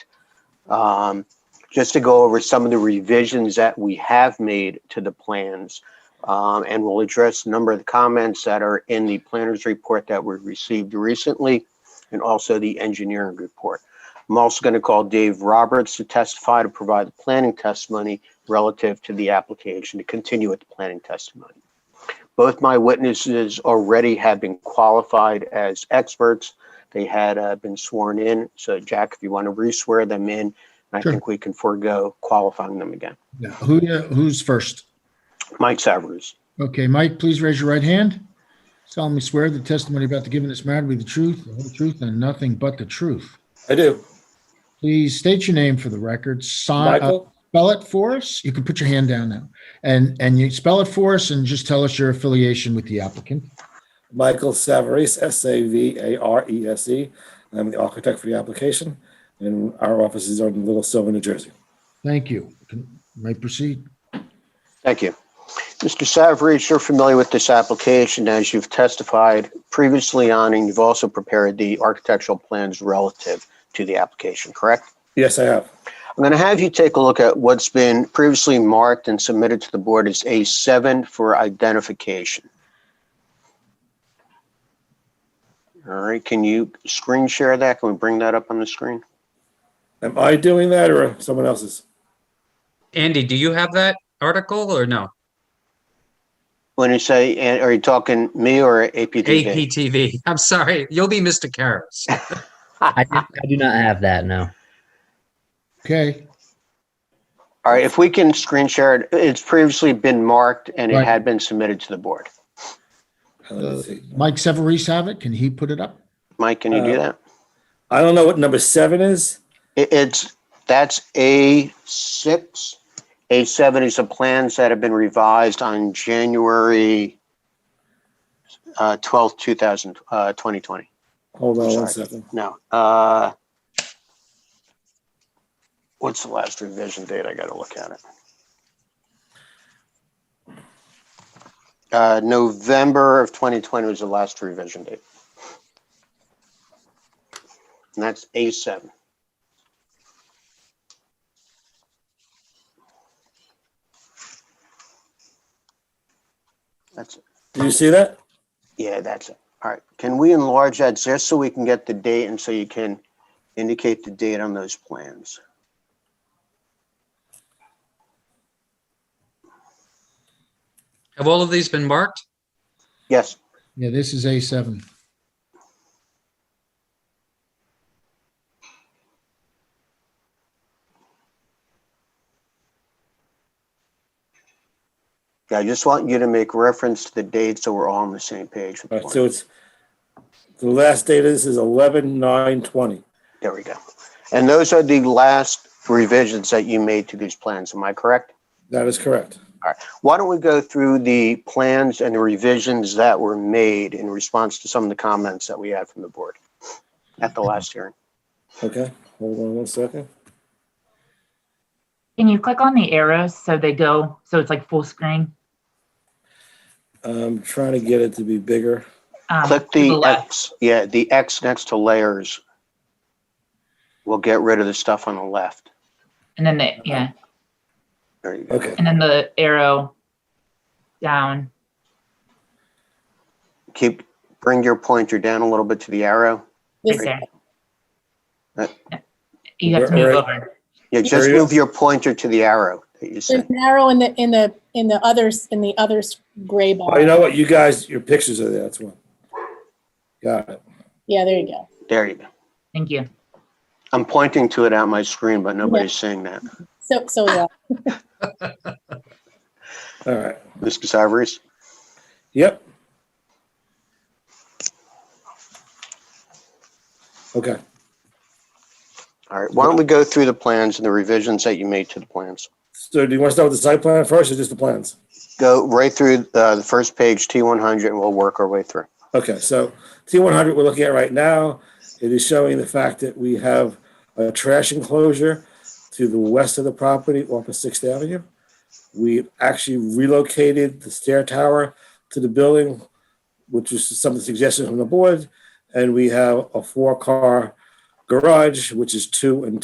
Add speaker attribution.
Speaker 1: um, just to go over some of the revisions that we have made to the plans. Um, and we'll address a number of the comments that are in the planner's report that we received recently and also the engineering report. I'm also going to call Dave Roberts to testify to provide the planning testimony relative to the application to continue with the planning testimony. Both my witnesses already have been qualified as experts. They had uh, been sworn in. So Jack, if you want to re-swear them in, I
Speaker 2: Sure.
Speaker 1: think we can forego qualifying them again.
Speaker 2: Now, Who, who's first?
Speaker 1: Mike Savarese.
Speaker 2: Okay, Mike, please raise your right hand. Solemnly swear the testimony about to give in this matter will be the truth, the whole truth, and nothing but the truth.
Speaker 3: I do.
Speaker 2: Please state your name for the record. Sign, uh,
Speaker 3: Michael,
Speaker 2: spell it for us. You can put your hand down now. And, and you spell it for us and just tell us your affiliation with the applicant.
Speaker 3: Michael Savarese, S-A-V-A-R-E-S-E. E I'm the architect for the application, and our offices are in Little Silver, New Jersey.
Speaker 2: Thank you. Can- May proceed.
Speaker 1: Thank you. Mr. Savarese, you're familiar with this application as you've testified previously on, and you've also prepared the architectural plans relative to the application, correct?
Speaker 3: Yes, I have.
Speaker 1: I'm going to have you take a look at what's been previously marked and submitted to the board as A7 for identification. All right, can you screen share that? Can we bring that up on the screen?
Speaker 3: Am I doing that or someone else's?
Speaker 4: Andy, do you have that article or no?
Speaker 1: When you say, and are you talking me or APTV?
Speaker 4: APTV. I'm sorry. You'll be Mr. Karas.
Speaker 5: I, do- I do not have that, no.
Speaker 2: Okay,
Speaker 1: All right, if we can screen share it, it's previously been marked and it
Speaker 2: Right.
Speaker 1: had been submitted to the board.
Speaker 3: Let
Speaker 2: Uh,
Speaker 3: me see.
Speaker 2: Mike Severese have it? Can he put it up?
Speaker 1: Mike, can you do
Speaker 3: Uh,
Speaker 1: that?
Speaker 3: I don't know what number seven is.
Speaker 1: It- It's, that's A6. A7 is the plans that have been revised on January uh, 12th, 2000, uh, 2020.
Speaker 3: Hold on
Speaker 1: Sorry.
Speaker 3: one second.
Speaker 1: No. uh, What's the last revision date? I gotta look at it. Uh, November of 2020 was the last revision date. And that's A7. That's
Speaker 3: Do you see that?
Speaker 1: yeah, that's it. All right. Can we enlarge that just so we can get the date and so you can indicate the date on those plans?
Speaker 4: Have all of these been marked?
Speaker 1: Yes,
Speaker 2: Yeah, this is A7.
Speaker 1: yeah, I just want you to make reference to the date so we're all on the same page. with
Speaker 3: All
Speaker 1: the
Speaker 3: right, so
Speaker 1: plan.
Speaker 3: it's, the last date of this is eleven nine twenty.
Speaker 1: There we go. And those are the last revisions that you made to these plans, am I correct?
Speaker 3: That is correct.
Speaker 1: Why don't we go through the plans and the revisions that were made in response to some of the comments that we had from the board at the last hearing?
Speaker 3: Okay, hold on one second.
Speaker 6: Can you click on the arrows so they go, so it's like full screen?
Speaker 3: I'm trying to get it to be bigger.
Speaker 6: Um,
Speaker 1: Click
Speaker 6: to
Speaker 1: the uh,
Speaker 6: left.
Speaker 1: X, yeah, the X next to layers. We'll get rid of the stuff on the left.
Speaker 6: And then the, yeah,
Speaker 1: There you go.
Speaker 3: Okay,
Speaker 6: and then the arrow down.
Speaker 1: Keep, bring your pointer down a little bit to the arrow.
Speaker 6: Right
Speaker 1: Yes.
Speaker 6: there.
Speaker 1: Uh,
Speaker 6: You have
Speaker 3: Right,
Speaker 6: to move
Speaker 3: right.
Speaker 6: over.
Speaker 1: Yeah, just
Speaker 3: There you go.
Speaker 1: move your pointer to the arrow that you
Speaker 7: There's
Speaker 1: said.
Speaker 7: an arrow in the, in the, in the others, in the others gray
Speaker 3: well, Oh, you
Speaker 7: bar.
Speaker 3: know what, you guys, your pictures are there, that's one. Got it.
Speaker 7: Yeah, there you go.
Speaker 1: There you go.
Speaker 6: Thank you.
Speaker 1: I'm pointing to it on my screen, but nobody's seeing that.
Speaker 7: So, so, uh, yeah.
Speaker 3: All right,
Speaker 1: Mr. Savarese?
Speaker 3: yep. Okay,
Speaker 1: All right, why don't we go through the plans and the revisions that you made to the plans?
Speaker 3: so do you want to start with the site plan first or just the plans?
Speaker 1: Go right through uh, the first page, T100, and we'll work our way through.
Speaker 3: Okay, so T100 we're looking at right now, it is showing the fact that we have a trash enclosure to the west of the property off of Sixth Avenue. We actually relocated the stair tower to the building, which is some of the suggestions from the board. And we have a four-car garage, which is two and